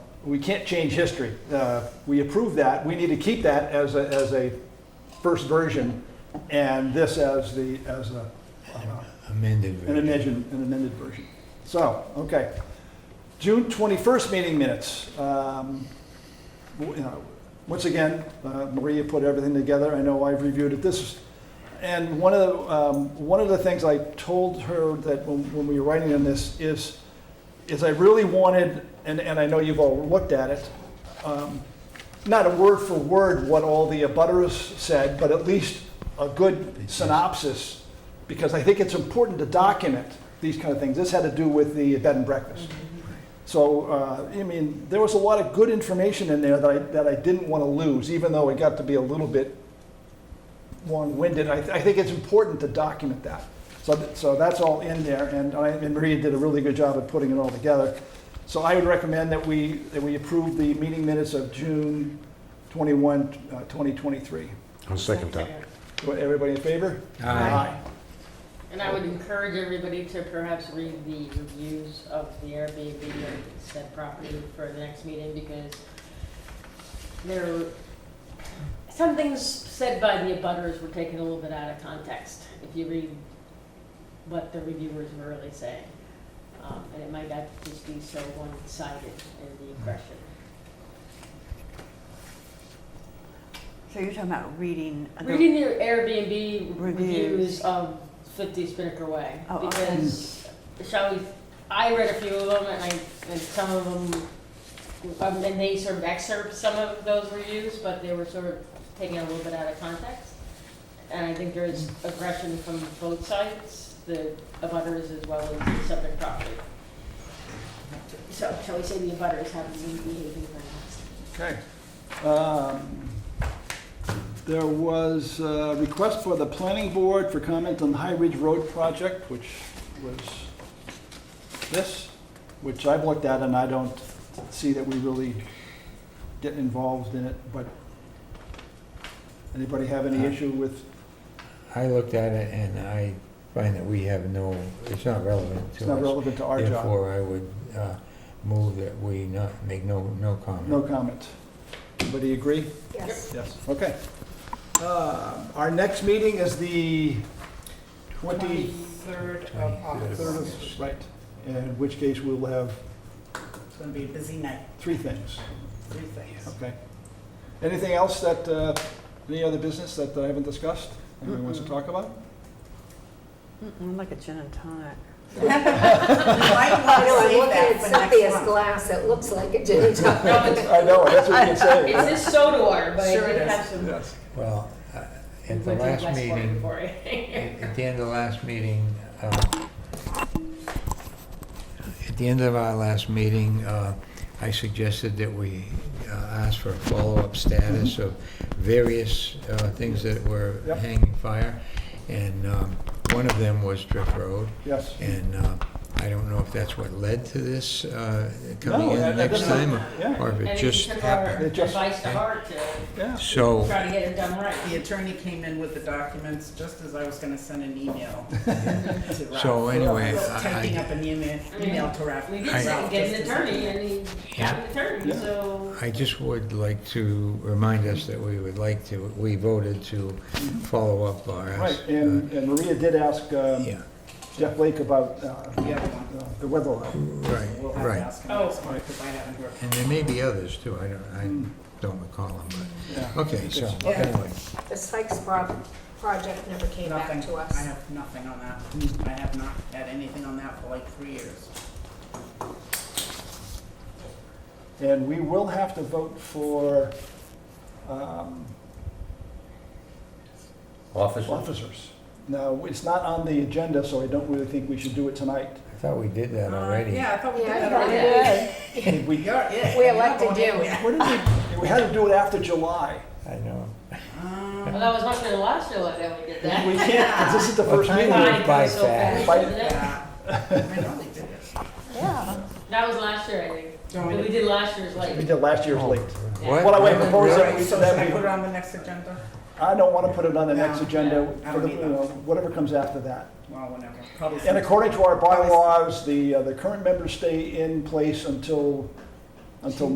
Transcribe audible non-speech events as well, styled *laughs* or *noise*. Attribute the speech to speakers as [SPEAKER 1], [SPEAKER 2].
[SPEAKER 1] we can't change history. Uh, We approved that, we need to keep that as a, as a first version, and this as the, as a, uh,
[SPEAKER 2] amended
[SPEAKER 1] an
[SPEAKER 2] version.
[SPEAKER 1] amended, an amended version. So, okay. June 21st meeting minutes. Um, w- you know, Once again, uh, Maria put everything together. I know I've reviewed it. This, and one of the, um, one of the things I told her that when when we were writing on this is, is I really wanted, and, and I know you've all looked at it, um, not a word for word what all the abutters said, but at least a good synopsis, because I think it's important to document these kind of things. This had to do with the bed and breakfast. So, uh, I mean, there was a lot of good information in there that I, that I didn't want to lose, even though it got to be a little bit long-winded. I, I think it's important to document that. So, th- so that's all in there, and I, and Maria did a really good job of putting it all together. So I would recommend that we, that we approve the meeting minutes of June 21, uh, 2023.
[SPEAKER 3] I'll second that.
[SPEAKER 1] Wa- Everybody in favor?
[SPEAKER 2] Aye.
[SPEAKER 4] And I would encourage everybody to perhaps read the reviews of the Airbnb and said property for the next meeting because there, some things said by the abutters were taken a little bit out of context. If you read what the reviewers were really saying, um, and it might not just be so one-sided in the impression.
[SPEAKER 5] So you're talking about reading. the-
[SPEAKER 4] Reading your Airbnb
[SPEAKER 5] Reviews.
[SPEAKER 4] reviews of 50 Spinnaker Way.
[SPEAKER 5] Oh, okay.
[SPEAKER 4] Because, shall we, I read a few of them and I, and some of them, um, and they sort of excerpt some of those reviews, but they were sort of taken a little bit out of context. And I think there's aggression from both sides, the abutters as well as the subject property. So, shall we say the abutters haven't been behaving very nicely?
[SPEAKER 1] Okay. Um, There was a request for the planning board for comment on the High Ridge Road project, which was this, which I've looked at and I don't see that we really get involved in it, but anybody have any issue with,
[SPEAKER 2] I looked at it and I find that we have no, it's not relevant
[SPEAKER 1] it's
[SPEAKER 2] to
[SPEAKER 1] not
[SPEAKER 2] us.
[SPEAKER 1] relevant to our job?
[SPEAKER 2] Therefore, I would uh, move that we not, make no, no comment.
[SPEAKER 1] No comment. Everybody agree?
[SPEAKER 4] Yes.
[SPEAKER 1] Yes, okay. Um, Our next meeting is the 20...
[SPEAKER 6] Twenty-third of
[SPEAKER 1] Third
[SPEAKER 6] August.
[SPEAKER 1] of, right, in which case we'll have
[SPEAKER 6] It's gonna be a busy night,
[SPEAKER 1] three things,
[SPEAKER 6] three
[SPEAKER 7] *laughs*
[SPEAKER 6] things.
[SPEAKER 1] okay? Anything else that, uh, any other business that I haven't discussed, anyone wants to talk about?
[SPEAKER 5] Mm-mm, Like a gin and tonic.
[SPEAKER 6] You might wanna
[SPEAKER 7] I know, I'm
[SPEAKER 6] save
[SPEAKER 7] looking
[SPEAKER 6] that
[SPEAKER 7] at
[SPEAKER 6] for next
[SPEAKER 7] Cynthia's
[SPEAKER 6] month.
[SPEAKER 7] glass, it looks like a gin
[SPEAKER 6] *laughs*
[SPEAKER 7] and tonic.
[SPEAKER 4] No, it's,
[SPEAKER 1] I know, that's what you can
[SPEAKER 4] it's
[SPEAKER 1] say.
[SPEAKER 4] just soda water, but I
[SPEAKER 6] Sure it
[SPEAKER 4] did
[SPEAKER 6] is.
[SPEAKER 4] have some.
[SPEAKER 1] Yes.
[SPEAKER 2] Well, uh, at the
[SPEAKER 4] Went to
[SPEAKER 2] last
[SPEAKER 4] West Warwick
[SPEAKER 2] meeting,
[SPEAKER 4] for *laughs* it.
[SPEAKER 2] at at the end of the last meeting, uh, at the end of our last meeting, uh, I suggested that we uh, ask for a follow-up status of various uh, things that were
[SPEAKER 1] Yep.
[SPEAKER 2] hanging fire, and um, one of them was Drift Road,
[SPEAKER 1] Yes.
[SPEAKER 2] and uh, I don't know if that's what led to this uh, coming
[SPEAKER 1] No,
[SPEAKER 2] in
[SPEAKER 1] that- that
[SPEAKER 2] next
[SPEAKER 1] doesn't-
[SPEAKER 2] time, or-
[SPEAKER 1] Yeah,
[SPEAKER 2] or if
[SPEAKER 4] And
[SPEAKER 2] it
[SPEAKER 4] it
[SPEAKER 2] just
[SPEAKER 4] took our
[SPEAKER 2] happened.
[SPEAKER 1] It just-
[SPEAKER 4] Advice to heart
[SPEAKER 1] yeah,
[SPEAKER 2] So...
[SPEAKER 4] to try to get it done right.
[SPEAKER 6] The attorney came in with the documents just as I was gonna send
[SPEAKER 2] *laughs*
[SPEAKER 6] an email to Ralph.
[SPEAKER 2] So anyway,
[SPEAKER 6] Well,
[SPEAKER 2] I-
[SPEAKER 6] Typing
[SPEAKER 2] I-
[SPEAKER 6] up an email, email to Ralph.
[SPEAKER 4] We
[SPEAKER 2] I-
[SPEAKER 4] did say
[SPEAKER 6] Ralph
[SPEAKER 4] get
[SPEAKER 6] just
[SPEAKER 4] an
[SPEAKER 6] as-
[SPEAKER 4] attorney, and he got an attorney,
[SPEAKER 1] Yeah.
[SPEAKER 4] so.
[SPEAKER 2] I just would like to remind us that we would like to, we voted to follow up our. uh,
[SPEAKER 1] right, and and Maria did ask um,
[SPEAKER 2] Yeah,
[SPEAKER 1] Jeff Blake about uh,
[SPEAKER 6] Yeah,
[SPEAKER 1] uh, the weather law.
[SPEAKER 2] right,
[SPEAKER 6] we'll have to
[SPEAKER 2] right.
[SPEAKER 6] ask him
[SPEAKER 7] Oh.
[SPEAKER 6] next month, because I haven't heard.
[SPEAKER 2] And there may be others too, I don't, I don't recall them,
[SPEAKER 1] Hmm. Yeah.
[SPEAKER 2] but, okay, so,
[SPEAKER 6] Yeah.
[SPEAKER 2] anyway.
[SPEAKER 7] The Sykes Pro- project never came back
[SPEAKER 6] Nothing.
[SPEAKER 7] to
[SPEAKER 6] I
[SPEAKER 7] us.
[SPEAKER 6] have nothing on that. I have not had anything on that for like three years.
[SPEAKER 1] And we will have to vote for um,
[SPEAKER 3] Officer?
[SPEAKER 1] officers. Now, it's not on the agenda, so I don't really think we should do it tonight.
[SPEAKER 2] I thought we did that
[SPEAKER 6] Uh,
[SPEAKER 2] already.
[SPEAKER 6] Yeah, I thought we did
[SPEAKER 7] Yeah, I
[SPEAKER 6] that
[SPEAKER 7] thought we
[SPEAKER 6] already.
[SPEAKER 1] Did We
[SPEAKER 6] You're it.
[SPEAKER 7] We
[SPEAKER 6] You're
[SPEAKER 7] elected
[SPEAKER 6] going
[SPEAKER 7] you.
[SPEAKER 6] anywhere.
[SPEAKER 1] What did we, we had to do it after July.
[SPEAKER 2] I know.
[SPEAKER 4] Well,
[SPEAKER 6] Um,
[SPEAKER 4] that was much in the last year that we did
[SPEAKER 1] We
[SPEAKER 6] *laughs*
[SPEAKER 4] that.
[SPEAKER 1] can't, 'cause this is the first
[SPEAKER 2] Well,
[SPEAKER 1] meeting.
[SPEAKER 2] time
[SPEAKER 4] Mine
[SPEAKER 2] goes by
[SPEAKER 4] goes so
[SPEAKER 2] fast.
[SPEAKER 4] fast, doesn't it?
[SPEAKER 6] yeah. I know they did it.
[SPEAKER 5] Yeah.
[SPEAKER 4] That was last year, I think.
[SPEAKER 6] Going
[SPEAKER 4] But we did last year's
[SPEAKER 1] We
[SPEAKER 4] like.
[SPEAKER 1] did last year's late. Oh.
[SPEAKER 2] What?
[SPEAKER 6] Oh,
[SPEAKER 1] What I would propose
[SPEAKER 6] All
[SPEAKER 1] that
[SPEAKER 6] right,
[SPEAKER 1] we,
[SPEAKER 6] so should I
[SPEAKER 1] that
[SPEAKER 6] put it
[SPEAKER 1] we,
[SPEAKER 6] on the next agenda?
[SPEAKER 1] I don't want to put it on the next
[SPEAKER 6] No,
[SPEAKER 1] agenda
[SPEAKER 6] I
[SPEAKER 1] for
[SPEAKER 6] don't
[SPEAKER 1] the, you
[SPEAKER 6] either.
[SPEAKER 1] know, whatever comes after that.
[SPEAKER 6] Well, whenever, probably.
[SPEAKER 1] And
[SPEAKER 6] sometime.
[SPEAKER 1] according to our bylaws, the, uh, the current members stay in place until, until